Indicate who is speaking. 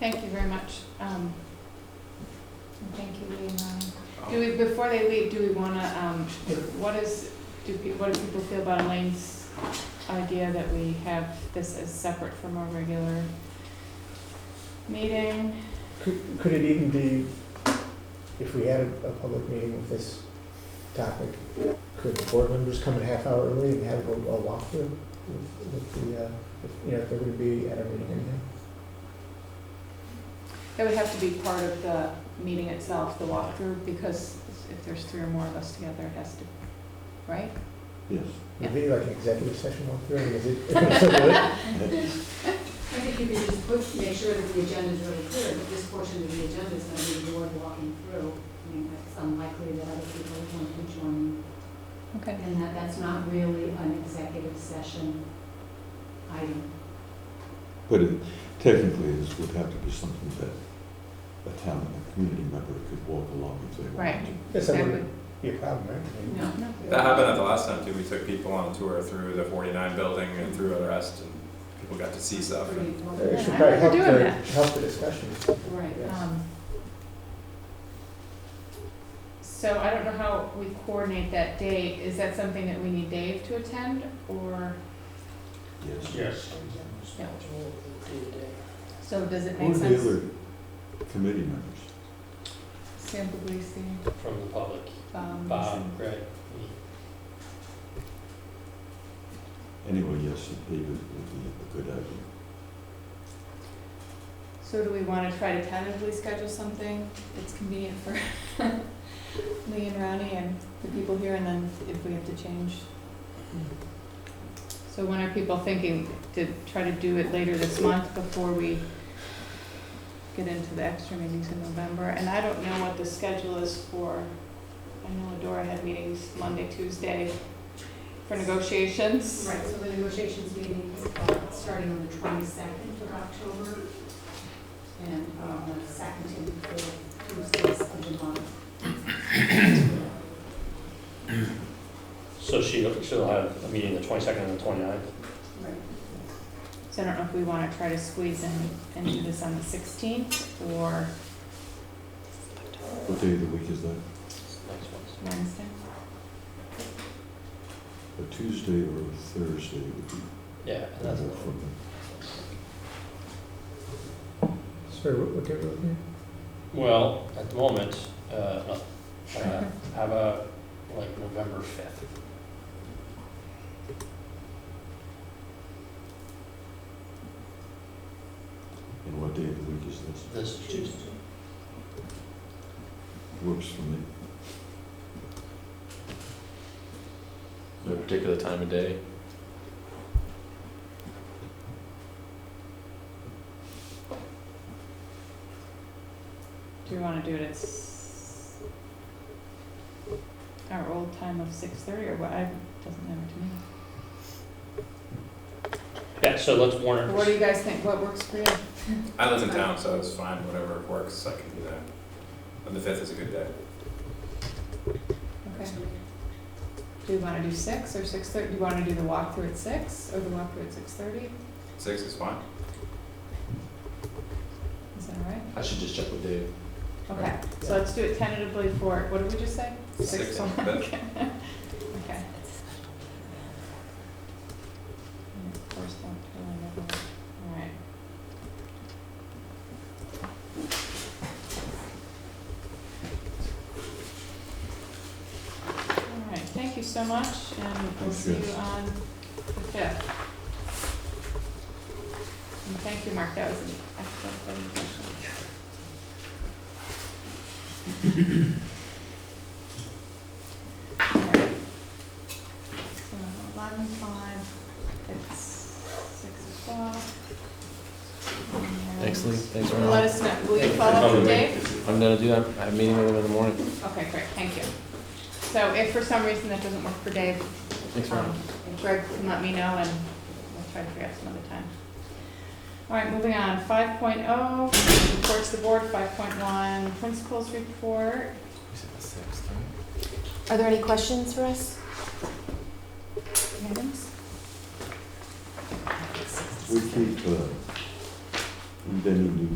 Speaker 1: Thank you very much. Um, and Thank you, Lee and Ryan. Do we, before they leave, do we wanna, um, what is, do, pe- what do people feel about Elaine's idea that we have this as separate from our regular meeting?
Speaker 2: Could, could it even be, if we had a, a public meeting with this topic, could the board members come a half hour early and have a, a walkthrough with, with the, uh, if- you know, if they're gonna be at our meeting or anything?
Speaker 1: That would have to be part of the meeting itself, the walkthrough, because if there's three or more of us together, it has to, right?
Speaker 3: Yes.
Speaker 2: Would it be like an executive session walkthrough, I mean, is it? Well,
Speaker 4: I think you could just put, make sure that the agenda is really clear, that this portion of the agenda is going to be the board walking through. I mean, it's unlikely that other people want to join,
Speaker 1: Okay.
Speaker 4: and that that's not really an executive session item.
Speaker 3: But it technically, this would have to be something that a town, a community member could walk along if they wanted
Speaker 1: Right.
Speaker 3: to.
Speaker 2: That's
Speaker 1: That
Speaker 2: not
Speaker 1: would,
Speaker 2: be a problem, right? I mean,
Speaker 4: No.
Speaker 1: no,
Speaker 5: That happened at the last time too. We took people on a tour through the 49 building and through the rest, and people got to see stuff.
Speaker 4: Pretty
Speaker 5: And
Speaker 4: important.
Speaker 2: It should
Speaker 1: Yeah,
Speaker 2: probably
Speaker 1: we're
Speaker 2: help
Speaker 1: doing
Speaker 2: the,
Speaker 1: that.
Speaker 2: help the discussion.
Speaker 1: Right,
Speaker 2: Yes.
Speaker 1: um. So I don't know how we coordinate that date, is that something that we need Dave to attend, or,
Speaker 3: Yes.
Speaker 6: Yes.
Speaker 1: no? So does it
Speaker 3: Who
Speaker 1: make
Speaker 3: are the
Speaker 1: sense?
Speaker 3: other committee members?
Speaker 1: Sam Puglisi,
Speaker 6: From the public,
Speaker 1: um,
Speaker 6: Bob, Greg, me.
Speaker 3: Anyway, yes, David would be a good idea.
Speaker 1: so do we wanna try to tentatively schedule something that's convenient for Lee and Ronnie and the people here, and then if we have to change? So when are people thinking to try to do it later this month before we get into the extra meetings in November? And I don't know what the schedule is for, I know Adora had meetings Monday, Tuesday for negotiations.
Speaker 4: Right, so the negotiations meeting is uh, starting on the twenty-second of October, and on the second and fourth Tuesdays of the month.
Speaker 6: So she, she'll have a meeting the twenty-second and the twenty-ninth?
Speaker 4: Right.
Speaker 1: So I don't know if we want to try to squeeze in and do this on the sixteenth or
Speaker 3: What day of the week is that?
Speaker 1: Wednesday.
Speaker 3: A Tuesday or a Thursday would be
Speaker 6: Yeah, and that's,
Speaker 3: better for me.
Speaker 2: Sorry, what, what day were we looking
Speaker 6: well, at the moment, uh, no, uh, how about like November fifth?
Speaker 3: And what day of the week is this?
Speaker 6: This Tuesday.
Speaker 3: Works for me.
Speaker 7: No particular time of day.
Speaker 1: Do we want to do it at s- our old time of six thirty or what? I, doesn't matter to me.
Speaker 6: Yeah, so let's warn
Speaker 1: But
Speaker 6: it.
Speaker 1: What do you guys think? What works for you?
Speaker 5: I live in town, so it's fine. Whatever works, I can do that. And the fifth is a good day.
Speaker 1: Okay. Do we want to do six or six thirty? Do you want to do the walkthrough at six or the walkthrough at six thirty?
Speaker 5: Six is fine.
Speaker 1: Is that all right?
Speaker 7: I should just check with Dave.
Speaker 1: Okay, so let's do it tentatively for, what did we just say?
Speaker 5: Six on
Speaker 1: o'clock.
Speaker 5: the
Speaker 1: Okay. Okay. First one, two, and all right. All right, thank you so much, and we'll see
Speaker 3: Thanks,
Speaker 1: you
Speaker 3: guys.
Speaker 1: on the fifth. And thank you, Mark, that was an excellent presentation. So eleven five, it's six o'clock. And
Speaker 7: Thanks, Lee. Thanks,
Speaker 1: Well, Let
Speaker 7: Ron.
Speaker 1: us know, will you
Speaker 7: Thank you.
Speaker 1: follow up with
Speaker 6: Probably.
Speaker 1: Dave?
Speaker 7: I'm gonna do that. I have a meeting with him in the morning.
Speaker 1: Okay, great, thank you. So if for some reason that doesn't work for Dave,
Speaker 7: Thanks, Ron.
Speaker 1: um, Greg can let me know and we'll try to figure out some other time. All right, moving on, five oh, reports to the board, five point one, principals report.
Speaker 8: Are there any questions for us?
Speaker 1: Items?
Speaker 3: We keep, uh, any new